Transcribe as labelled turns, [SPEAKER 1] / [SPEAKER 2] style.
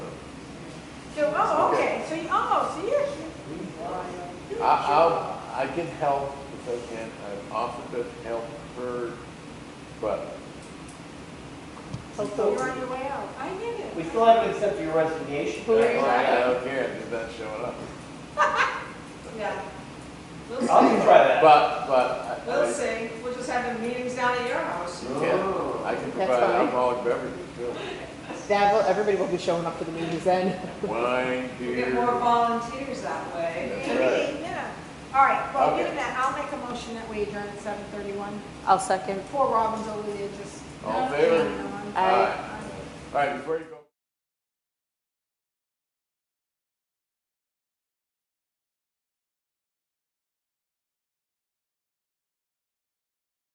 [SPEAKER 1] oh,
[SPEAKER 2] I, I'll, I can help if I can, I've offered to help her, but
[SPEAKER 1] You're on
[SPEAKER 3] Hopefully,
[SPEAKER 1] your way out. I get it.
[SPEAKER 3] we still haven't accepted your resignation.
[SPEAKER 2] I
[SPEAKER 3] I'll
[SPEAKER 1] you
[SPEAKER 2] I
[SPEAKER 1] at?
[SPEAKER 2] don't care, if not showing up.
[SPEAKER 1] Yeah. We'll see.
[SPEAKER 3] even try that.
[SPEAKER 2] But, but, I-
[SPEAKER 1] We'll
[SPEAKER 2] I,
[SPEAKER 1] see. We'll just have the meetings down at your house.
[SPEAKER 2] you can, I can
[SPEAKER 4] That's
[SPEAKER 2] provide
[SPEAKER 4] fine.
[SPEAKER 2] alcoholic beverages too.
[SPEAKER 4] That will, everybody will be showing up to the meetings then.
[SPEAKER 2] Wine,
[SPEAKER 1] We'll
[SPEAKER 2] beer.
[SPEAKER 1] get more volunteers that way.
[SPEAKER 2] That's
[SPEAKER 1] And
[SPEAKER 2] right.
[SPEAKER 1] we- yeah. All right, well,
[SPEAKER 2] Okay.
[SPEAKER 1] given that, I'll make a motion that we adjourn at seven thirty-one.
[SPEAKER 4] I'll second.
[SPEAKER 1] Poor Robin's over there just.
[SPEAKER 2] All in favor?
[SPEAKER 1] Yeah, I know.
[SPEAKER 4] Aye.
[SPEAKER 2] All right, before you go.